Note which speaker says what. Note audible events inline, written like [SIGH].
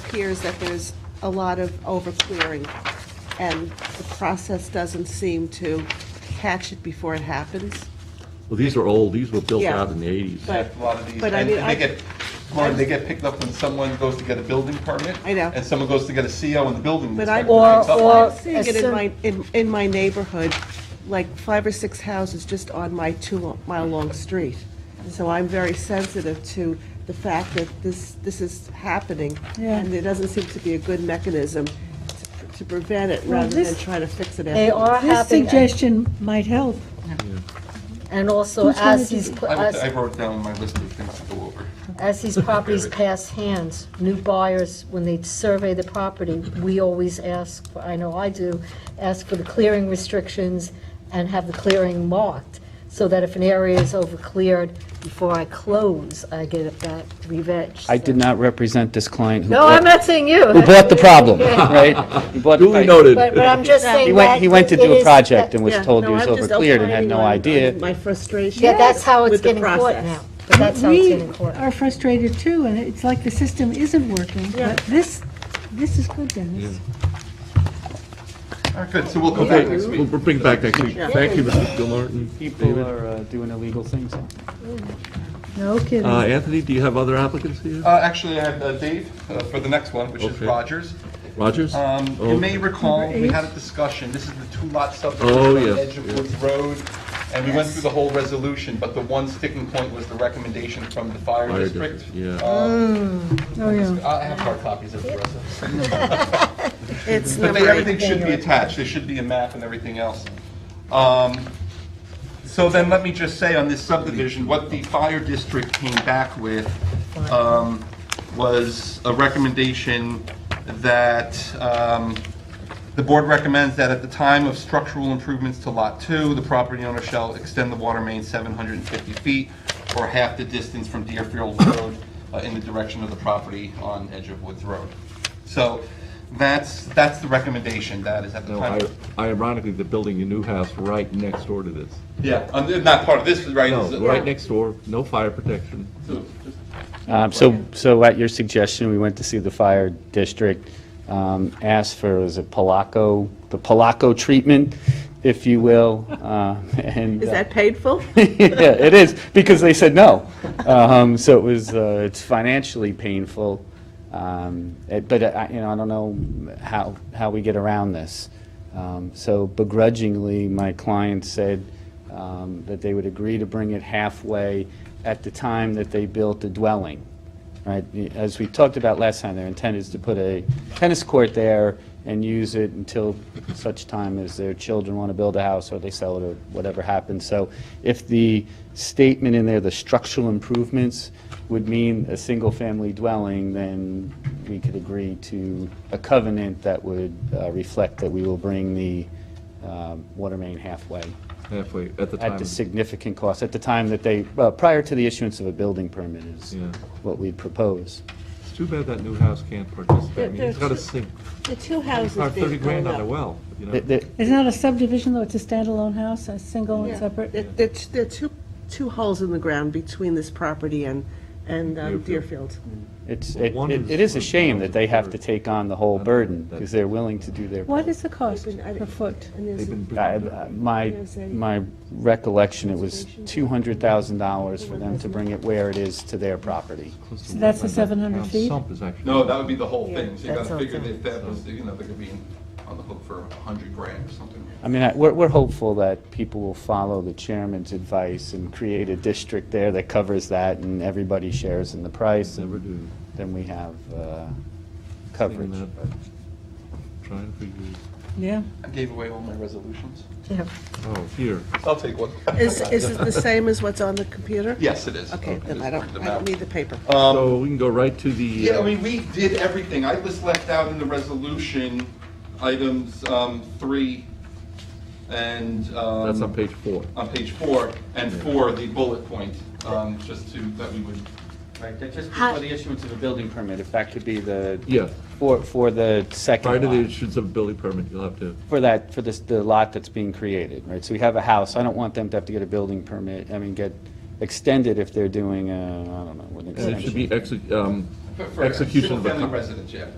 Speaker 1: appears that there's a lot of overclearing, and the process doesn't seem to catch it before it happens.
Speaker 2: Well, these are old, these were built
Speaker 1: Yeah.
Speaker 2: out in the eighties.
Speaker 1: But-
Speaker 3: a lot of these,
Speaker 1: but
Speaker 3: and
Speaker 1: I
Speaker 3: and
Speaker 1: mean, I-
Speaker 3: they get, Lauren, they get picked up when someone goes to get a building permit.
Speaker 1: I know.
Speaker 3: And someone goes to get a CO and the building
Speaker 1: But I-
Speaker 3: inspector picks up
Speaker 1: I'm
Speaker 3: on
Speaker 4: Or-
Speaker 3: it.
Speaker 1: seeing it in
Speaker 4: Assume-
Speaker 1: my, in, in my neighborhood, like five or six houses just on my two-mile-long street. So I'm very sensitive to the fact that this, this is happening,
Speaker 4: Yeah.
Speaker 1: and there doesn't seem to be a good mechanism to- to prevent it rather than
Speaker 4: this-
Speaker 1: try to fix it
Speaker 4: They
Speaker 1: afterwards.
Speaker 4: are
Speaker 5: This
Speaker 4: having,
Speaker 5: suggestion might help.
Speaker 4: and also
Speaker 5: Who's gonna
Speaker 4: as
Speaker 5: do
Speaker 4: these,
Speaker 5: it?
Speaker 4: pl-
Speaker 3: I wrote-
Speaker 4: as-
Speaker 3: I wrote down my list of things to go over.
Speaker 4: as these properties pass hands, new buyers, when they survey the property, we always ask, for- I know I do, ask for the clearing restrictions and have the clearing marked, so that if an area is over-cleared, before I close, I get that re-veg.
Speaker 6: I did not represent this client who
Speaker 4: No, I'm
Speaker 6: bought,
Speaker 4: not saying you.
Speaker 6: who bought the problem,
Speaker 4: [LAUGHS] Yeah.
Speaker 6: [LAUGHS] right? Who bought the
Speaker 2: Duly
Speaker 6: fight.
Speaker 2: noted.
Speaker 4: But, but I'm just
Speaker 6: He
Speaker 4: saying that.
Speaker 6: went, he went to
Speaker 4: it
Speaker 6: do a
Speaker 4: is-
Speaker 6: project and was
Speaker 1: Yeah,
Speaker 6: told
Speaker 1: no,
Speaker 6: he was
Speaker 1: I'm just
Speaker 6: overcleared and had
Speaker 1: opining
Speaker 6: no
Speaker 1: on- on
Speaker 6: idea.
Speaker 1: My frustration.
Speaker 4: Yeah, that's how it's
Speaker 1: with the
Speaker 4: getting caught
Speaker 1: process.
Speaker 4: now, but that's how it's
Speaker 5: We
Speaker 4: getting caught.
Speaker 5: are frustrated too, and it's like the system isn't working, but this, this is good, Dennis.
Speaker 3: All right, good, so we'll come back
Speaker 2: Okay,
Speaker 3: next
Speaker 2: we'll
Speaker 3: week.
Speaker 2: we'll bring it back next week. Thank you, Mr. Gilmartin.
Speaker 6: People are uh, doing illegal things.
Speaker 5: No
Speaker 2: Uh,
Speaker 5: kidding.
Speaker 2: Anthony, do you have other applicants here?
Speaker 3: Uh, Actually, I have uh, Dave uh, for the next one, which is
Speaker 2: Okay.
Speaker 3: Rogers.
Speaker 2: Rogers?
Speaker 3: Um,
Speaker 2: Oh,
Speaker 3: You may recall,
Speaker 5: Number
Speaker 3: we
Speaker 5: eight.
Speaker 3: had a discussion, this is the two-lot
Speaker 2: Oh,
Speaker 3: subdivision on the
Speaker 2: yes,
Speaker 3: edge of Woods Road, and we went through the whole resolution, but the one sticking point was the recommendation from the fire
Speaker 2: Fire
Speaker 3: district.
Speaker 2: district, yeah.
Speaker 3: Um,
Speaker 5: Oh, yeah.
Speaker 3: I have hard copies of the rest of it.
Speaker 1: It's
Speaker 3: But
Speaker 1: number
Speaker 3: they,
Speaker 1: eight.
Speaker 3: everything should be attached, there should be a map and everything else. Um, So then let me just say on this subdivision, what the fire district came back with um, was a recommendation that um, the board recommends that at the time of structural improvements to Lot 2, the property owner shall extend the water main 750 feet or half the distance from Deerfield Road uh, in the direction of the property on Edge of Woods Road. So that's, that's the recommendation, that is at the
Speaker 2: No,
Speaker 3: time.
Speaker 2: I- ironically, they're building a new house right next door to this.
Speaker 3: Yeah, um, not part of this, right?
Speaker 2: No,
Speaker 3: This is-
Speaker 2: right next door, no fire protection.
Speaker 6: Um, So, so at your suggestion, we went to see the fire district, um, asked for, is it Palaco, the Palaco treatment, if you will, uh, [LAUGHS] and.
Speaker 1: Is
Speaker 6: uh,
Speaker 1: that painful?
Speaker 6: [LAUGHS] yeah, it is, because they said no. Um, so it was, uh, it's financially painful. Um, it- but I, you know, I don't know how, how we get around this. Um, so begrudgingly, my client said, um, that they would agree to bring it halfway at the time that they built the dwelling. Right, as we talked about last time, their intent is to put a tennis court there and use it until such time as their children want to build a house or they sell it or whatever happens. So if the statement in there, the structural improvements, would mean a single-family dwelling, then we could agree to a covenant that would uh, reflect that we will bring the um, water main halfway
Speaker 2: Halfway, at the time.
Speaker 6: at the significant cost, at the time that they, uh, prior to the issuance of a building permit is
Speaker 2: Yeah.
Speaker 6: what we'd propose.
Speaker 2: It's too bad that new house can't participate. I mean, It's got to sink,
Speaker 1: [LAUGHS] The two houses
Speaker 2: It's
Speaker 1: being
Speaker 2: 30 grand
Speaker 1: blown
Speaker 2: on
Speaker 1: up.
Speaker 2: a well, you know?
Speaker 6: Th- th-
Speaker 5: It's not a subdivision, though, it's a standalone house, a single and
Speaker 1: Yeah.
Speaker 5: separate.
Speaker 1: There- There there are two, two holes in the ground between this property and, and um, Deerfield.
Speaker 6: It's,
Speaker 2: Well,
Speaker 6: it
Speaker 2: one
Speaker 6: it-
Speaker 2: is
Speaker 6: it is a
Speaker 2: for
Speaker 6: shame that they have to
Speaker 2: thousand.
Speaker 6: take on the whole burden, because they're willing to do their.
Speaker 5: What is the cost
Speaker 1: Even- I-
Speaker 5: per foot?
Speaker 1: And there's
Speaker 2: They've been
Speaker 6: I-
Speaker 2: bringing it
Speaker 6: I-
Speaker 2: up.
Speaker 6: My, my recollection, it was $200,000 for them to bring it where it is to their property.
Speaker 2: Close to
Speaker 5: So that's the
Speaker 2: wetland.
Speaker 5: 700
Speaker 2: Town
Speaker 5: feet?
Speaker 2: sump is actually-
Speaker 3: No, that would be the whole thing, so you
Speaker 4: that
Speaker 3: gotta
Speaker 4: sounds
Speaker 3: figure
Speaker 4: right.
Speaker 3: that that was, you know, they're gonna be on the hook for a hundred grand or something.
Speaker 6: I mean, I- we're, we're hopeful that people will follow the chairman's advice and create a district there that covers that, and everybody shares in the price.
Speaker 2: Never
Speaker 6: and
Speaker 2: do.
Speaker 6: Then we have uh,
Speaker 2: Saying
Speaker 6: coverage.
Speaker 2: that, Trying for you,
Speaker 5: Yeah.
Speaker 3: I gave away all my resolutions.
Speaker 4: Yeah.
Speaker 2: oh, here.
Speaker 3: I'll take one. [LAUGHS]
Speaker 1: Is, is it the same as what's on the computer?
Speaker 3: Yes, it is.
Speaker 1: Okay,
Speaker 3: I
Speaker 1: then
Speaker 3: just
Speaker 1: I don't,
Speaker 3: printed them
Speaker 1: I don't
Speaker 3: out.
Speaker 1: need the paper.
Speaker 2: So we can go right to the,
Speaker 3: Um, Yeah, I
Speaker 2: uh,
Speaker 3: mean, we did everything. I was left out in the resolution, items um, three and.
Speaker 2: uh,
Speaker 3: um,
Speaker 2: that's on page four.
Speaker 3: On page four, and four, the bullet point, um, just to, that we would.
Speaker 6: Right, just
Speaker 4: Hi.
Speaker 6: before the issuance of a building permit, if that could be the.
Speaker 2: Yeah.
Speaker 6: For, for the
Speaker 2: Prior
Speaker 6: second
Speaker 2: to the
Speaker 6: lot,
Speaker 2: issuance of a building permit, you'll have to,
Speaker 6: for that, for this, the lot that's being created, right? So we have a house, I don't want them to have to get a building permit, I mean, get extended if they're doing, uh, I don't know, what an
Speaker 2: and it should
Speaker 6: extension.
Speaker 2: be exec- um,
Speaker 3: for- for
Speaker 2: execution of a.
Speaker 3: Single-family
Speaker 2: con-
Speaker 3: residence, yeah.